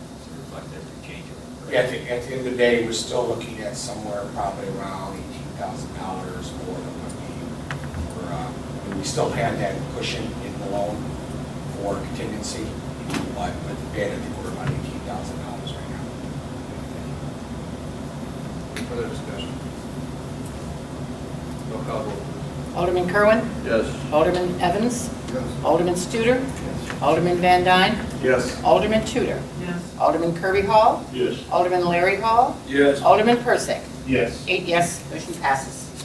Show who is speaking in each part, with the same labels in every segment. Speaker 1: sometimes they have to change it.
Speaker 2: At the, at the end of the day, we're still looking at somewhere probably around eighteen thousand dollars more than what we, were, uh, and we still had that cushion in the loan for contingency, but, but the bid, I think we're about eighteen thousand dollars right now.
Speaker 3: Further discussion? Roll call vote.
Speaker 4: Alderman Kerwin.
Speaker 5: Yes.
Speaker 4: Alderman Evans.
Speaker 3: Yes.
Speaker 4: Alderman Studer. Alderman Van Dyne.
Speaker 5: Yes.
Speaker 4: Alderman Tudor.
Speaker 6: yes,
Speaker 4: Alderman Kirby Hall.
Speaker 5: Yes.
Speaker 4: Alderman Larry Hall.
Speaker 5: Yes.
Speaker 4: Alderman Persick.
Speaker 5: Yes.
Speaker 4: Eight yes, motion passes.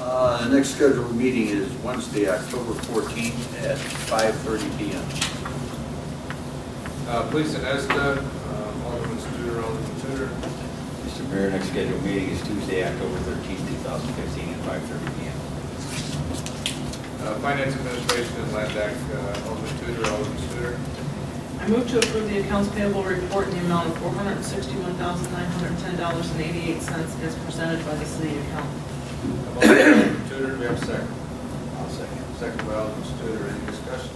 Speaker 5: Uh, the next scheduled meeting is Wednesday, October fourteenth at five thirty P M.
Speaker 3: Uh, Police and ESTA, uh, Alderman Studer, Alderman Tudor.
Speaker 1: Mr. Mayor, next scheduled meeting is Tuesday, October thirteenth, two thousand fifteen, at five thirty P M.
Speaker 3: Uh, Finance Administration and Land Act, uh, Alderman Tudor, Alderman Studer.
Speaker 6: I move to approve the accounts payable report in the amount of four hundred and sixty-one thousand, nine hundred and ten dollars and eighty-eight cents as presented by the city accountant.
Speaker 3: A motion by Alderman Tudor, do we have a second?
Speaker 5: I'll second.
Speaker 3: Second by Alderman Studer, any discussion?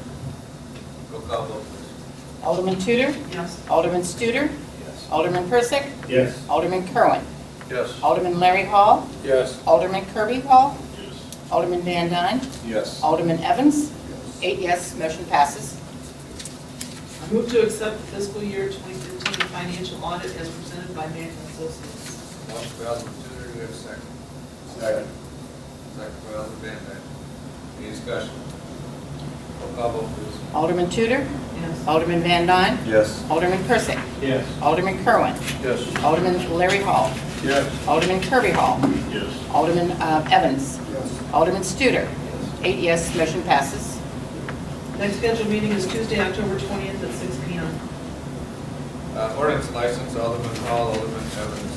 Speaker 3: Roll call vote, please.
Speaker 4: Alderman Tudor.
Speaker 6: Yes,
Speaker 4: Alderman Studer.
Speaker 5: Yes.
Speaker 4: Alderman Persick.
Speaker 5: Yes.
Speaker 4: Alderman Kerwin.
Speaker 5: Yes.
Speaker 4: Alderman Larry Hall.
Speaker 5: Yes.
Speaker 4: Alderman Kirby Hall. Alderman Van Dyne.
Speaker 5: Yes.
Speaker 4: Alderman Evans. Eight yes, motion passes.
Speaker 6: I move to accept the fiscal year 2015 financial audit as presented by Manning Associates.
Speaker 3: Motion by Alderman Tudor, do we have a second?
Speaker 5: Second.
Speaker 3: Second by Alderman Van Dyne. Any discussion? Roll call vote, please.
Speaker 4: Alderman Tudor.
Speaker 6: Yes,
Speaker 4: Alderman Van Dyne.
Speaker 5: Yes.
Speaker 4: Alderman Persick.
Speaker 5: Yes.
Speaker 4: Alderman Kerwin.
Speaker 5: Yes.
Speaker 4: Alderman Larry Hall.
Speaker 5: Yes.
Speaker 4: Alderman Kirby Hall.
Speaker 5: Yes.
Speaker 4: Alderman uh, Evans.
Speaker 5: Yes.
Speaker 4: Alderman Studer. Eight yes, motion passes.
Speaker 6: next scheduled meeting is Tuesday, October 20th at 6 PM.
Speaker 3: Uh, Ordinance license, Alderman Hall, Alderman Evans.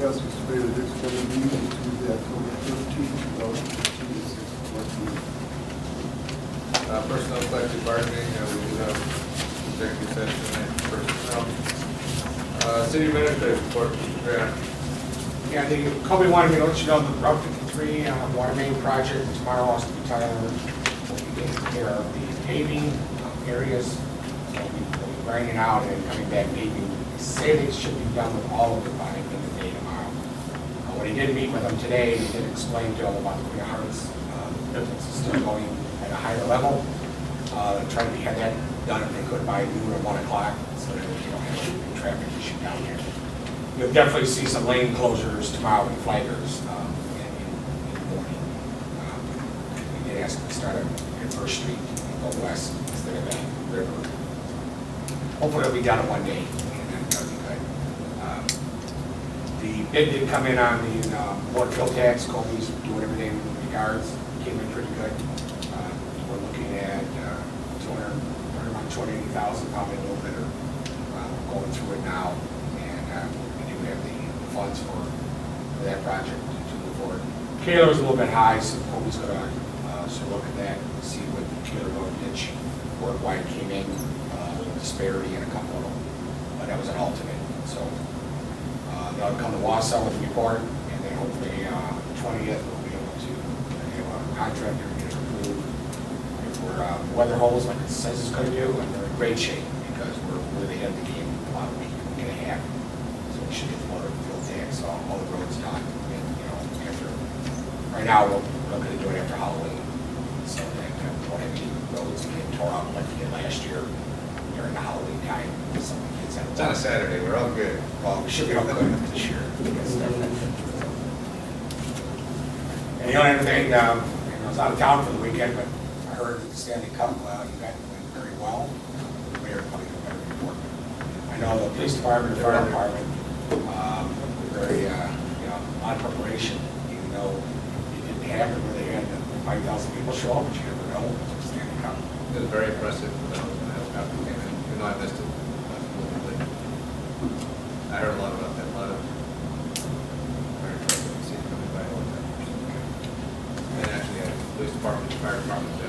Speaker 7: Yes, Mr. Mayor, the next scheduled meeting is Tuesday, October thirteenth, two thousand fifteen, at six o'clock. p.m.
Speaker 3: Uh, Personnel collective bargaining, uh, we do have executive session and personnel. Uh, City administrator report, Mr. Graham.
Speaker 2: Yeah, the Kobe wanted me to let you know the Route 53 uh, water main project tomorrow, I'll speak to Tyler. We'll be taking care of the paving areas, we'll be we'll be grinding out and coming back paving. He said it should be done with all of it by the end of the day tomorrow. Uh, When he did meet with them today, he did explain to him about the Queen Harvard's, uh, business is still going at a higher level. Uh, Trying to have that done if they could by noon or 1 o'clock, so that we don't have any big traffic issue down there you'll definitely see some lane closures tomorrow and flaggers um, in in- in the morning. Um, We did ask them to start at First Street and go west instead of at River. Hopefully it'll be done in one day, and that'll be good. Um, The bid did come in on the uh, board fill tax, Kobe's doing everything in regards, came in pretty good. Uh, We're looking at uh, 200, around 280,000, probably a little better, uh, going through it now. And uh, we do have the funds for for that project to move forward. Kaler was a little bit high, so Kobe's gonna, uh, sort of look at that, and see what the Kaler Road ditch, where why it came in, uh, with disparity in a couple of them. But that was an alternate, so uh, They'll come to Wausau with a report, and then hopefully uh, 20th, we'll be able to have a contractor get it approved. If we're uh, weather holes like it says it's going to do, and they're in great shape, because we're really ahead of the game about a week and a half. So we should get the water field tax, all all the roads done, and, you know, after, right now, we're looking to do it after Halloween. So that uh, we don't have any roads getting tore up like we did last year during the Halloween time, some of the kids had.
Speaker 3: It's on a Saturday, we're all good.
Speaker 2: Well, we should be all good this year. And the only other thing, um, you know, I was out of town for the weekend, but I heard that the Stanley Cup, well, you guys played very well. The Mayor probably did a better report. I know the police department, the fire department, um, were very, uh, you know, on preparation, even though it didn't happen, where they had five thousand people show up, but you never know, it's the Stanley Cup.
Speaker 3: It was very impressive, when I was when I was out, and then, you know, I missed it. Absolutely. I heard a lot about that, a lot of, very impressive, to see it coming by all the time. And actually, yeah, the police department, fire department,